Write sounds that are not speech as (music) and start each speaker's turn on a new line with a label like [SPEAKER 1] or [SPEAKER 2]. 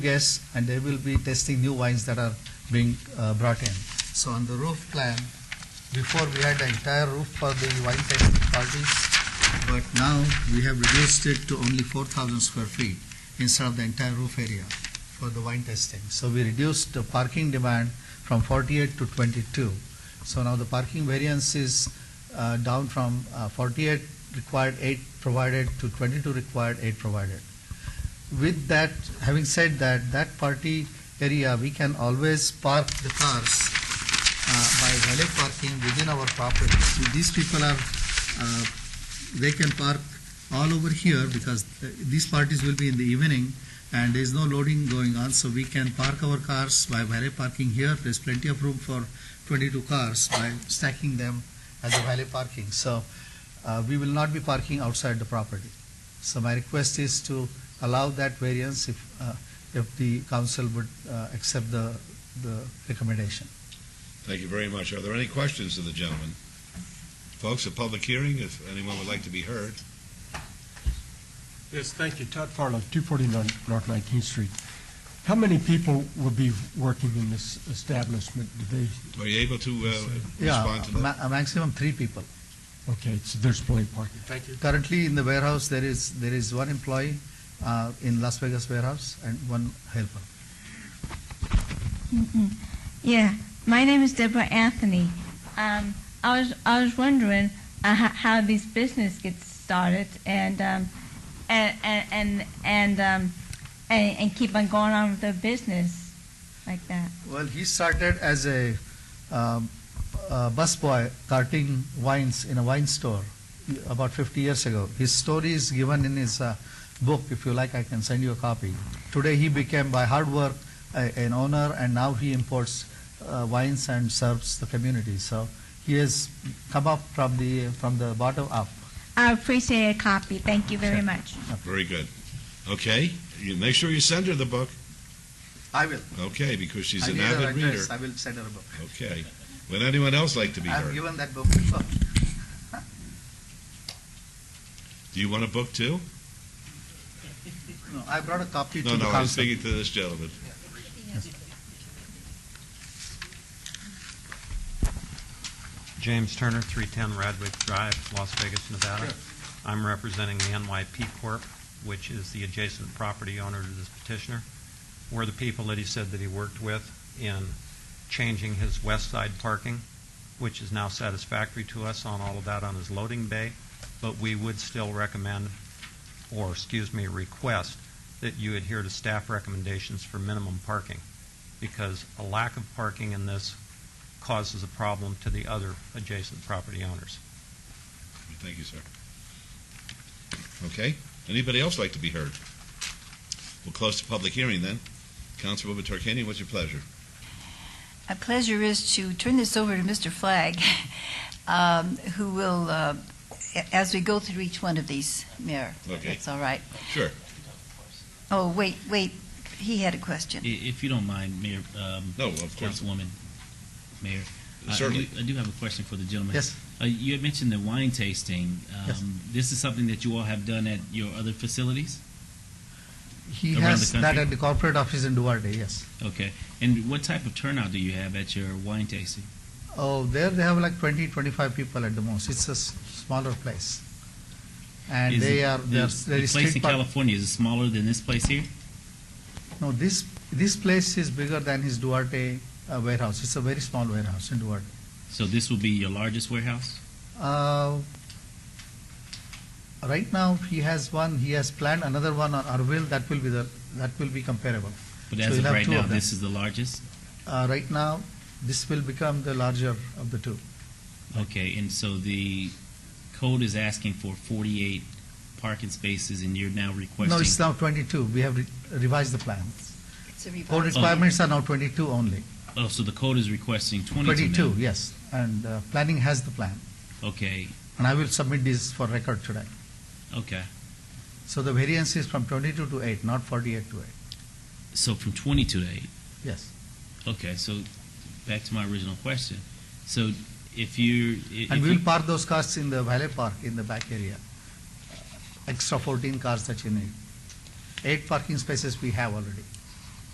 [SPEAKER 1] guests and they will be tasting new wines that are being uh, brought in. So on the roof plan, before we had the entire roof for the wine tasting parties, but now we have reduced it to only 4,000 square feet instead of the entire roof area for the wine tasting. So we reduced the parking demand from 48 to 22. So now the parking variance is uh, down from uh, 48 required, 8 provided to 22 required, 8 provided with that, having said that, that party area, we can always park the cars uh, by valet parking within our property. So These people are, uh, they can park all over here because th- these parties will be in the evening and there's no loading going on, so we can park our cars by valet parking here. There's plenty of room for 22 cars by stacking them as a valet parking. So uh, we will not be parking outside the property. So my request is to allow that variance if, uh, if the council would uh, accept the, the recommendation.
[SPEAKER 2] Thank you very much. Are there any questions to the gentleman? Folks, a public hearing, if anyone would like to be heard.
[SPEAKER 3] Yes, thank you. Todd Farlow, 249 North 19th Street. How many people will be working in this establishment? Do they,
[SPEAKER 2] Are you able to uh,
[SPEAKER 1] Yeah,
[SPEAKER 2] respond to
[SPEAKER 1] ma-
[SPEAKER 2] that?
[SPEAKER 1] a maximum three people.
[SPEAKER 3] okay, so there's plenty of parking. Thank you.
[SPEAKER 1] Currently, in the warehouse, there is, there is one employee uh, in Las Vegas warehouse and one helper.
[SPEAKER 4] Yeah, my name is Deborah Anthony. Um, I was I was wondering uh, how, how this business gets started and um, and and and and, um, and and keep on going on with the business like that.
[SPEAKER 1] Well, he started as a um, uh, busboy carting wines in a wine store about 50 years ago. His story is given in his uh, book. If you like, I can send you a copy. Today, he became, by hard work, a, an owner, and now he imports uh, wines and serves the community. So he has come up from the from the bottom up.
[SPEAKER 4] I appreciate a copy. Thank you very much.
[SPEAKER 2] Very good. Okay, you make sure you send her the book,
[SPEAKER 1] I will.
[SPEAKER 2] okay, because she's
[SPEAKER 1] I
[SPEAKER 2] an
[SPEAKER 1] need her
[SPEAKER 2] avid reader.
[SPEAKER 1] address. I will send her a book.
[SPEAKER 2] Okay. Would anyone else like to be
[SPEAKER 1] I've
[SPEAKER 2] heard?
[SPEAKER 1] given that book (laughs) before.
[SPEAKER 2] Do you want a book too?
[SPEAKER 1] No, I brought a copy
[SPEAKER 2] No,
[SPEAKER 1] to
[SPEAKER 2] no,
[SPEAKER 1] the
[SPEAKER 2] I'm
[SPEAKER 1] council.
[SPEAKER 2] speaking to this gentleman.
[SPEAKER 5] James Turner, 310 Radwick Drive, Las Vegas, Nevada. I'm representing the NYP Corp., which is the adjacent property owner to this petitioner. We're the people that he said that he worked with in changing his west side parking, which is now satisfactory to us on all of that on his loading bay, but we would still recommend, or excuse me, request that you adhere to staff recommendations for minimum parking, because a lack of parking in this causes a problem to the other adjacent property owners.
[SPEAKER 2] Thank you, sir. Okay, anybody else like to be heard? We'll close the public hearing then. Councilwoman Tarkanian, what's your pleasure?
[SPEAKER 6] My pleasure is to turn this over to Mr. Flagg, (laughs) um, who will, uh, a- as we go through each one of these, Mayor. if
[SPEAKER 2] Okay.
[SPEAKER 6] That's all right.
[SPEAKER 2] Sure.
[SPEAKER 6] Oh, wait, wait, he had a question.
[SPEAKER 7] I- If you don't mind, Mayor, um,
[SPEAKER 2] No, Oh, of course,
[SPEAKER 7] Councilwoman, Mayor. I- I
[SPEAKER 2] certainly.
[SPEAKER 7] do- I do have a question for the gentleman.
[SPEAKER 1] Yes.
[SPEAKER 7] Uh, You had mentioned the wine tasting.
[SPEAKER 1] Yes.
[SPEAKER 7] Um, This is something that you all have done at your other facilities?
[SPEAKER 1] He
[SPEAKER 7] Around
[SPEAKER 1] has
[SPEAKER 7] the
[SPEAKER 1] that
[SPEAKER 7] country?
[SPEAKER 1] at the corporate office in Duarte, yes.
[SPEAKER 7] Okay. And what type of turnout do you have at your wine tasting?
[SPEAKER 1] Oh, there they have like 20, 25 people at the most. It's a s- smaller place. And
[SPEAKER 7] Is
[SPEAKER 1] they
[SPEAKER 7] it-
[SPEAKER 1] are,
[SPEAKER 7] the-
[SPEAKER 1] they are, there
[SPEAKER 7] The
[SPEAKER 1] is
[SPEAKER 7] place in
[SPEAKER 1] street park.
[SPEAKER 7] California, is it smaller than this place here?
[SPEAKER 1] No, this, this place is bigger than his Duarte uh, warehouse. It's a very small warehouse in Duarte.
[SPEAKER 7] So this will be your largest warehouse?
[SPEAKER 1] Uh, Right now, he has one, he has planned another one on Arville, that will be the, that will be comparable.
[SPEAKER 7] But
[SPEAKER 1] So
[SPEAKER 7] as
[SPEAKER 1] you'll
[SPEAKER 7] of
[SPEAKER 1] have
[SPEAKER 7] right
[SPEAKER 1] two
[SPEAKER 7] now,
[SPEAKER 1] of them.
[SPEAKER 7] this is the largest?
[SPEAKER 1] Uh, Right now, this will become the larger of the two.
[SPEAKER 7] Okay, and so the code is asking for 48 parking spaces, and you're now requesting...
[SPEAKER 1] No, it's now 22. We have re- revised the plan.
[SPEAKER 6] It's a
[SPEAKER 1] Code
[SPEAKER 6] revised-
[SPEAKER 1] requirements are now 22 only.
[SPEAKER 7] Oh, so the code is requesting 22 now?
[SPEAKER 1] 22, yes. And uh, planning has the plan.
[SPEAKER 7] Okay,
[SPEAKER 1] And I will submit this for record today.
[SPEAKER 7] okay.
[SPEAKER 1] So the variance is from 22 to 8, not 48 to 8.
[SPEAKER 7] So from 22 to 8.
[SPEAKER 1] Yes.
[SPEAKER 7] Okay, so back to my original question. So if you're... i-
[SPEAKER 1] And
[SPEAKER 7] if
[SPEAKER 1] we will
[SPEAKER 7] you-
[SPEAKER 1] park those cars in the valet park in the back area. Extra 14 cars that you need. Eight parking spaces we have already.